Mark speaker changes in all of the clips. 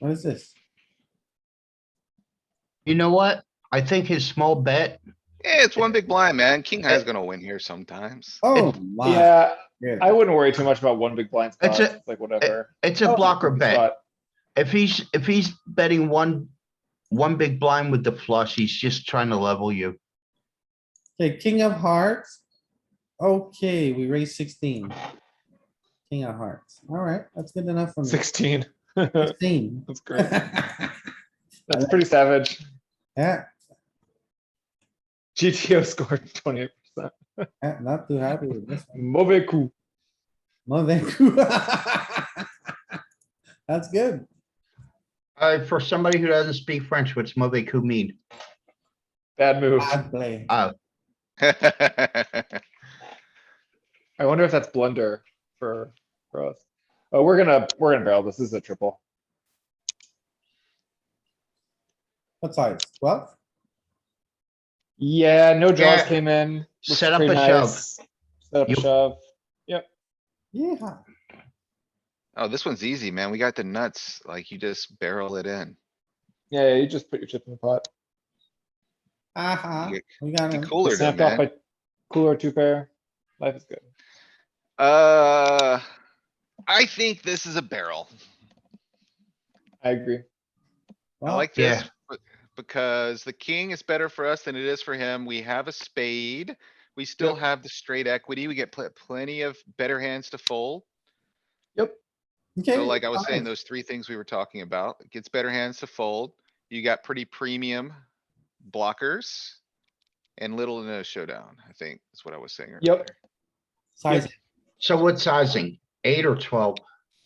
Speaker 1: What is this?
Speaker 2: You know what? I think his small bet,
Speaker 3: Yeah, it's one big blind, man. King high's gonna win here sometimes.
Speaker 1: Oh, my.
Speaker 4: Yeah,
Speaker 1: Yeah.
Speaker 4: I wouldn't worry too much about one big blind
Speaker 2: It's
Speaker 4: spot,
Speaker 2: a-
Speaker 4: It's like whatever.
Speaker 2: it's a
Speaker 1: Oh,
Speaker 2: blocker bet.
Speaker 4: But
Speaker 2: If he's, if he's betting one, one big blind with the flush, he's just trying to level you.
Speaker 1: Okay, king of hearts. Okay, we raised sixteen. King of hearts. Alright, that's good enough for me.
Speaker 4: sixteen, that's
Speaker 1: Sixteen.
Speaker 4: great. That's pretty savage.
Speaker 1: Yeah,
Speaker 4: GTO scored twenty-eight percent.
Speaker 1: yeah, not too happy with this.
Speaker 4: Mauvais coup.
Speaker 1: No, thank you. That's good.
Speaker 2: Uh, for somebody who doesn't speak French, what's mauvais coup mean?
Speaker 4: Bad move.
Speaker 1: Bad play.
Speaker 3: It's
Speaker 4: I wonder if that's blunder for, for us. Oh, we're gonna, we're gonna barrel this. This is a triple.
Speaker 1: What size? Twelve?
Speaker 4: Yeah, no draws
Speaker 2: Yeah.
Speaker 4: came in. Looks
Speaker 2: Set up
Speaker 4: pretty
Speaker 2: a shove.
Speaker 4: nice. Set up a
Speaker 2: You-
Speaker 4: shove.
Speaker 1: Yeah,
Speaker 3: Oh, this one's easy, man. We got the nuts. Like you just barrel it in.
Speaker 4: Yeah, you just put your chip in the pot.
Speaker 1: aha,
Speaker 3: You
Speaker 1: we got
Speaker 3: The
Speaker 1: him.
Speaker 3: cooler than
Speaker 4: Snapped off
Speaker 3: man.
Speaker 4: a cooler two pair. Life is good.
Speaker 3: Uh, I think this is a barrel.
Speaker 4: I agree.
Speaker 3: I
Speaker 1: Well,
Speaker 3: like
Speaker 2: Yeah.
Speaker 3: this. b- Because the king is better for us than it is for him. We have a spade. We still
Speaker 4: Yep.
Speaker 3: have the straight equity. We get pl- plenty of better hands to fold.
Speaker 1: okay,
Speaker 3: So like I was saying,
Speaker 1: fine.
Speaker 3: those three things we were talking about, it gets better hands to fold. You got pretty premium blockers. And little to no showdown, I think is what I was saying.
Speaker 4: Yep.
Speaker 3: earlier.
Speaker 1: Size,
Speaker 2: So what sizing? Eight or twelve?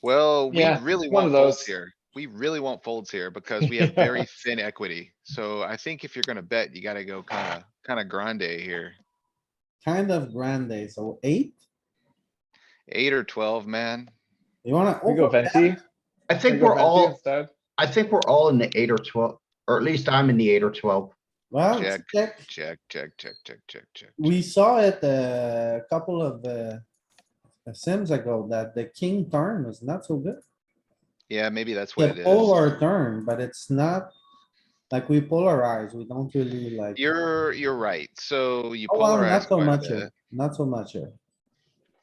Speaker 3: Well, we
Speaker 4: Yeah,
Speaker 3: really
Speaker 4: one
Speaker 3: want
Speaker 4: of
Speaker 3: folds
Speaker 4: those.
Speaker 3: here. We really want folds here because we have very thin equity. So I think if you're gonna bet, you gotta go kinda, kinda grande here.
Speaker 1: kind of grande, so eight?
Speaker 3: Eight or twelve, man.
Speaker 1: You wanna?
Speaker 4: We go
Speaker 1: over-
Speaker 4: venti.
Speaker 2: I
Speaker 4: We
Speaker 2: think
Speaker 4: go
Speaker 2: we're
Speaker 4: venti
Speaker 2: all,
Speaker 4: instead.
Speaker 2: I think we're all in the eight or twelve, or at least I'm in the eight or twelve.
Speaker 1: Well, let's check.
Speaker 3: Check, check, check, check, check, check.
Speaker 1: We saw it uh, a couple of uh, sims ago that the king turn was not so good.
Speaker 3: Yeah, maybe that's what it
Speaker 1: The polar
Speaker 3: is.
Speaker 1: turn, but it's not like we polarize. We don't really like.
Speaker 3: You're, you're right. So you
Speaker 1: Oh, well,
Speaker 3: polarize
Speaker 1: Not so
Speaker 3: quite a
Speaker 1: much
Speaker 3: bit.
Speaker 1: here, not so much here.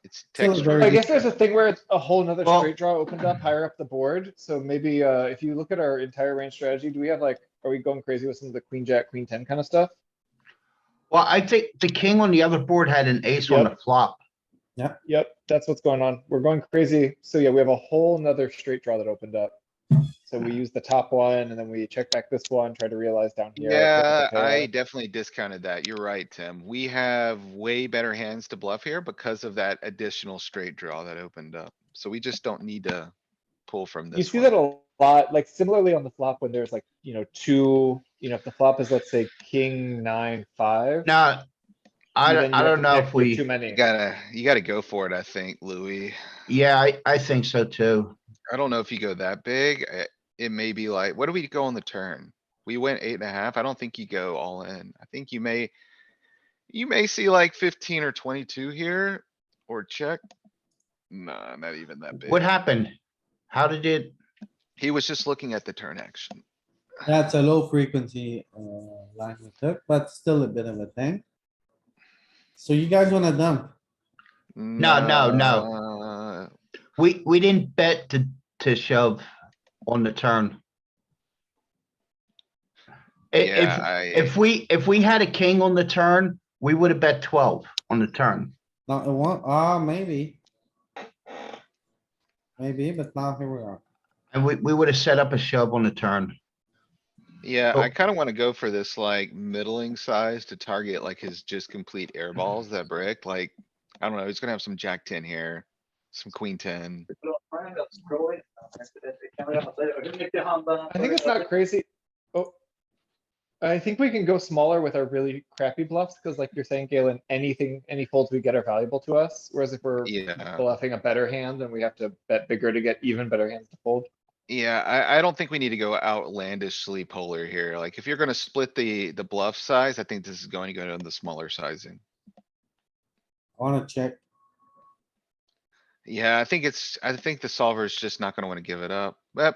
Speaker 3: It's
Speaker 1: Still a
Speaker 3: texture.
Speaker 4: I
Speaker 1: Very
Speaker 4: guess there's a thing where it's a whole nother
Speaker 2: Well-
Speaker 4: straight draw opened up higher up the board, so maybe, uh, if you look at our entire range strategy, do we have like, are we going crazy with some of the queen, jack, queen ten kind of stuff?
Speaker 2: Well, I think the king on the other board had an ace on the flop.
Speaker 4: Yep, that's what's going on. We're going crazy, so yeah, we have a whole nother straight draw that opened up. So we use the top one, and then we check back this one, try to realize down here. flip
Speaker 3: Yeah,
Speaker 4: the pair.
Speaker 3: I definitely discounted that. You're right, Tim. We have way better hands to bluff here because of that additional straight draw that opened up. So we just don't need to pull from
Speaker 4: You
Speaker 3: this
Speaker 4: see that
Speaker 3: one.
Speaker 4: a lot, like similarly on the flop when there's like, you know, two, you know, if the flop is, let's say, king, nine, five.
Speaker 2: Now, I,
Speaker 4: then
Speaker 2: don't- I
Speaker 4: you have
Speaker 2: don't
Speaker 4: to
Speaker 2: know
Speaker 4: pick
Speaker 2: if
Speaker 4: with Too
Speaker 2: we,
Speaker 4: many.
Speaker 3: You gotta, you gotta go for it, I think, Louis.
Speaker 2: yeah, I, I think so too.
Speaker 3: I don't know if you go that big. eh, It may be like, what do we go on the turn? We went eight and a half. I don't think you go all in. I think you may, you may see like fifteen or twenty-two here or check. Nah, not even that big.
Speaker 2: What happened? How did it?
Speaker 3: He was just looking at the turn action.
Speaker 1: That's a low frequency uh, line we took, but still a bit of a thing. So you guys wanna dump?
Speaker 3: No,
Speaker 2: no, no. We, we didn't bet to, to shove on the turn. I-
Speaker 3: Yeah,
Speaker 2: If,
Speaker 3: I,
Speaker 2: if we, if we had a king on the turn, we would have bet twelve on the turn.
Speaker 1: No, it won't, ah, maybe. Maybe, but now here we are.
Speaker 2: And we, we would have set up a shove on the turn.
Speaker 3: yeah,
Speaker 2: oh.
Speaker 3: I kinda wanna go for this like middling size to target like his just complete air
Speaker 2: Mm-hmm.
Speaker 3: balls that brick, like, I don't know, he's gonna have some jack ten here, some queen ten.
Speaker 4: I think it's not crazy. Oh. I think we can go smaller with our really crappy bluffs, because like you're saying, Galen, anything, any folds we get are valuable to us, whereas if we're
Speaker 3: Yeah,
Speaker 4: bluffing a better hand, then we have to bet bigger to get even better hands to fold.
Speaker 3: yeah, I, I don't think we need to go outlandishly polar here. Like, if you're gonna split the, the bluff size, I think this is going to go down the smaller sizing.
Speaker 1: I wanna check.
Speaker 3: Yeah, I think it's, I think the solver is just not gonna wanna give it up, but